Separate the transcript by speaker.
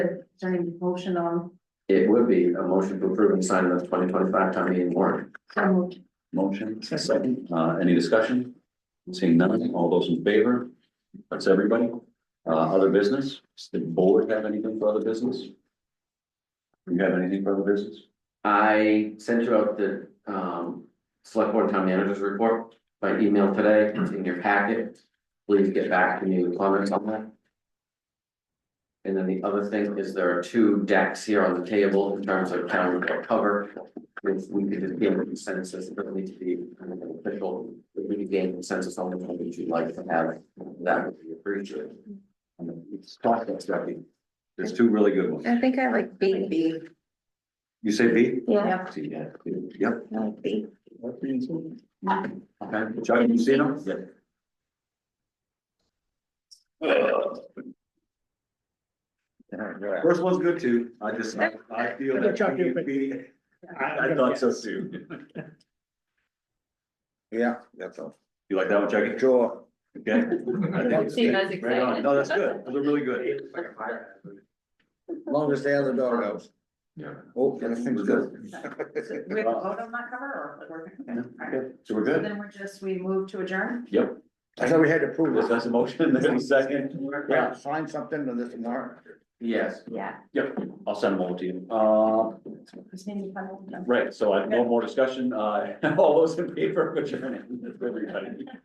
Speaker 1: during motion on,
Speaker 2: It would be a motion to approve and sign the twenty twenty five town meeting warrant.
Speaker 1: so moved.
Speaker 3: Motion, second, uh, any discussion? Seeing none, all those in favor? That's everybody. Uh, other business? Does the board have anything for other business? You have anything for other business?
Speaker 2: I sent you out the um select board town managers report by email today. It's in your packet. Please get back to me with comments on that. And then the other thing is there are two decks here on the table in terms of town report cover. If we could just gain consensus, it doesn't need to be kind of an official, if we could gain consensus on the one that you'd like to have, that would be appreciated.
Speaker 3: And it's talked about, Stephanie. There's two really good ones.
Speaker 4: I think I like B.
Speaker 1: B.
Speaker 3: You say B?
Speaker 4: Yeah,
Speaker 3: See, yeah, yep.
Speaker 4: I like B.
Speaker 3: Okay, Chuck, you seen them? Yeah. First one's good too. I just, I I feel that.
Speaker 5: Chuck, you-
Speaker 3: B. I thought so too.
Speaker 5: Yeah, that's all.
Speaker 3: You like that one, Chuck?
Speaker 5: Sure.
Speaker 3: Okay.
Speaker 1: you guys
Speaker 3: Right on. No, that's good. Those are really good.
Speaker 5: Longest day of the dog house.
Speaker 2: Yeah.
Speaker 5: Oh, everything's good.
Speaker 1: We have a vote on that cover or we're, okay, all right.
Speaker 3: So we're
Speaker 1: So
Speaker 3: good.
Speaker 1: Then we're just, we move to adjourn?
Speaker 3: Yep.
Speaker 5: I thought we had to prove
Speaker 3: This
Speaker 5: this.
Speaker 3: has a motion, there's a second.
Speaker 5: Yeah, sign something to this warrant.
Speaker 2: Yes,
Speaker 4: Yeah.
Speaker 3: Yep, I'll send them over to you. Uh,
Speaker 1: Christine, you final? No.
Speaker 3: right, so I have no more discussion. Uh, all those in favor, of adjourned, everybody.